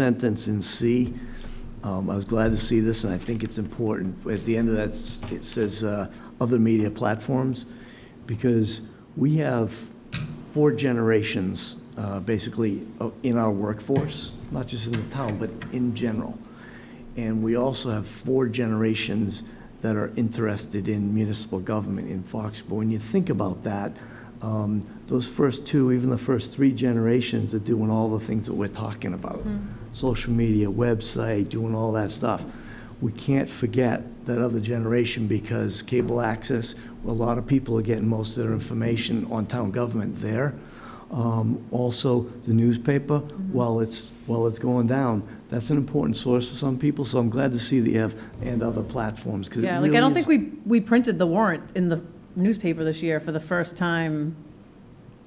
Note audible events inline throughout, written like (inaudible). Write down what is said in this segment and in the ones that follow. sentence in C. Um, I was glad to see this, and I think it's important. At the end of that, s- it says, uh, "other media platforms," because we have four generations, uh, basically, o- in our workforce, not just in the town, but in general. And we also have four generations that are interested in municipal government in Foxborough. When you think about that, um, those first two, even the first three generations are doing all the things that we're talking about. Social media, website, doing all that stuff. We can't forget that other generation because cable access, a lot of people are getting most of their information on town government there. Um, Also, the newspaper, Mm-hmm. while it's, while it's going down, that's an important source for some people, so I'm glad to see that you have, and other platforms, because it Yeah, really like, I don't is- think we, we printed the warrant in the newspaper this year for the first time.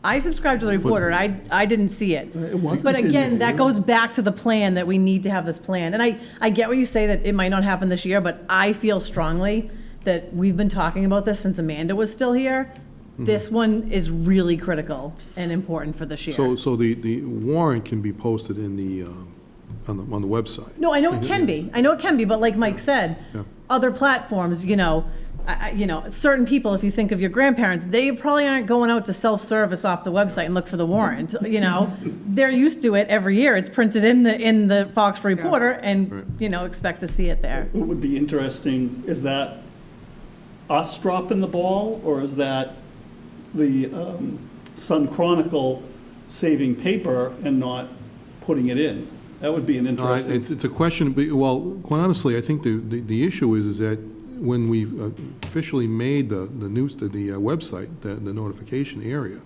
I subscribed to the reporter, and I, I didn't see it. It wasn't But in again, that there. goes back to the plan, that we need to have this plan. And I, I get what you say, that it might not happen this year, but I feel strongly that we've been talking about this since Amanda was still here. Mm-hmm. This one is really critical and important for this year. So, so the, the warrant can be posted in the, um, on the, on the website? No, I know it can be. I know it can be, but like Mike said, Yeah. other platforms, you know, I, I- you know, certain people, if you think of your grandparents, they probably aren't going out to self-service off the website and look for the warrant, you (laughs) know? They're used to it every year. It's printed in the, in the Fox Reporter Right. and, you know, expect to see it there. What would be interesting, is that us dropping the ball, or is that the um, Sun Chronicle saving paper and not putting it in? That would be an No, I- interesting, It's, it's a question, but- well, quite honestly, I think the, the the issue is, is that when we uh, officially made the, the news, the the, uh, website, the, the notification area,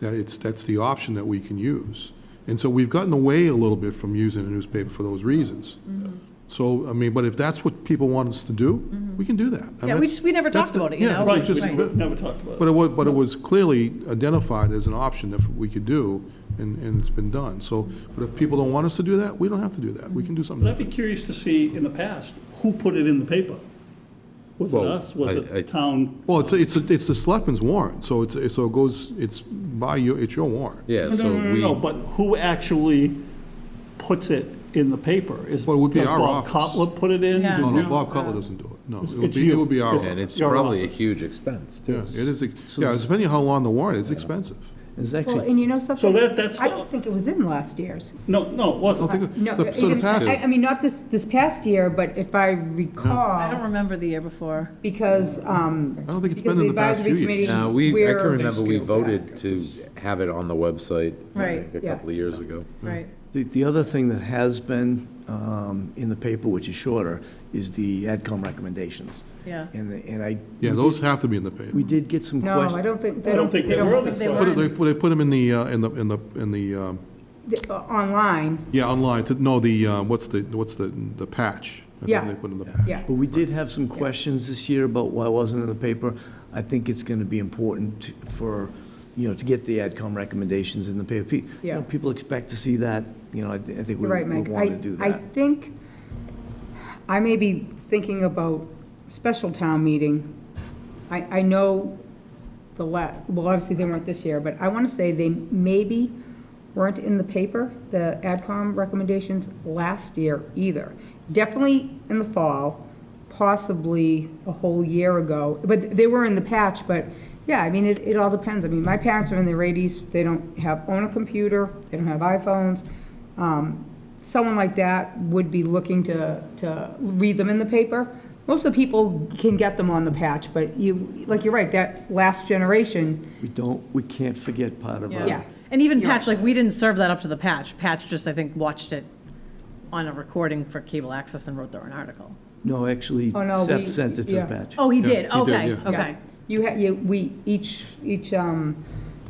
that it's, that's the option that we can use. And so we've gotten away a little bit from using a newspaper for those reasons. Mm-hmm. So, I mean, but if that's what people want us to do, we can do that. I mean, Yeah, we that's- just- we never that's talked the- about it, you yeah, know? right, just- we never talked about But it. it was, but it was clearly identified as an option that we could do, and, and it's been done. So, but if people don't want us to do that, we don't have to do that. We can do something But I'd different. be curious to see in the past, who put it in the paper? Was it Well, us? Was I- it I- the town? Well, it's, it's, it's the selectman's warrant, so it's, it's- so it goes, it's by your, it's your warrant. Yeah, No, so no, no, we, no, but who actually puts it in the paper? Is Well, it would be did our Bob office. Cotler put it in? Yeah. Did No, no, we- Bob Cutler doesn't do it. No, it would It's be, it you. would be our It's- and office. it's Your probably a office. huge expense, Yeah, too. it is, ex- yeah, it's depending on how long the warrant is, it's expensive. It's Well, actually, and you know something? that- that's I the- don't think it was in last year's. No, no, it wasn't. I don't think- No, the- So the even- I- past, I mean, not this, this past year, but if I I don't recall, remember the year before. because, um. I don't think it's been in the past few years. Now, we, I can remember we voted to have it on the website. I Right. think, A Yeah. couple of years ago. Right. the, the other thing that has been um, in the paper, which is shorter, is the AdCom recommendations. Yeah. And, the- and I, Yeah, those have to be in the paper. we did get some No, questions. I don't think, I they don't don't, think they they were don't, this they time. were. They, they put them in the, uh, in the, in the, in the, um, the- uh, online, yeah, online, to- no, the, uh, what's the, what's the, the patch? I think Yeah. They put in the patch. yeah. But we did have some questions this year about why it wasn't in the paper. I think it's going to be important for, you know, to get the AdCom recommendations in the paper. Pe- you Yeah. know, People expect to see that, you know, I thi- I think we You're right, we Mike. want to I, do I that. think, I may be thinking about special town meeting. I, I know the la, well, obviously they weren't this year, but I want to say they maybe weren't in the paper, the AdCom recommendations last year either. Definitely in the fall, possibly a whole year ago, but they were in the patch, but, yeah, I mean, it, it all depends. I mean, my parents are in their eighties, they don't have, own a computer, they don't have iPhones. Um, someone like that would be looking to, to read them in the paper. Most of the people can get them on the patch, but you, like you're right, that last generation, We don't, we can't forget part of Yeah. our, Yeah. And even Patch, like, we didn't serve that up to the Patch. Patch just, I think, watched it on a recording for cable access and wrote their own article. no, actually, Oh, no, we- Seth sent it to the yeah. batch. Oh, he Yeah, did? he did, Okay, yeah. okay. you had, you, we, each, each, um,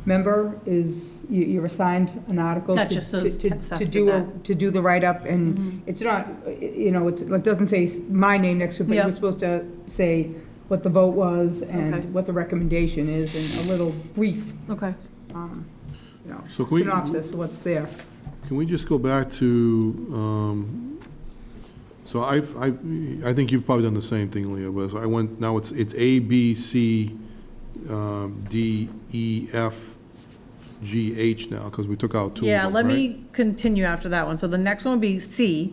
member is, you, you're assigned an article to, Gotcha, so to, to- Seth to did do, a- that. Mm-hmm. to do the write-up, and it's not, uh, you know, it's, it doesn't say s- my name next to it, but Yeah. you're supposed to say what the vote was Okay. and what the recommendation is, and a little brief, Okay. um, you know, So can we- synopsis of what's there. Can we just go back to, um, so I, I, I think you've probably done the same thing, Leo, but I went, now it's, it's A, B, C, um, D, E, F, GH now, because we took out two of Yeah, them, let right? me continue after that one. So the next one would be C,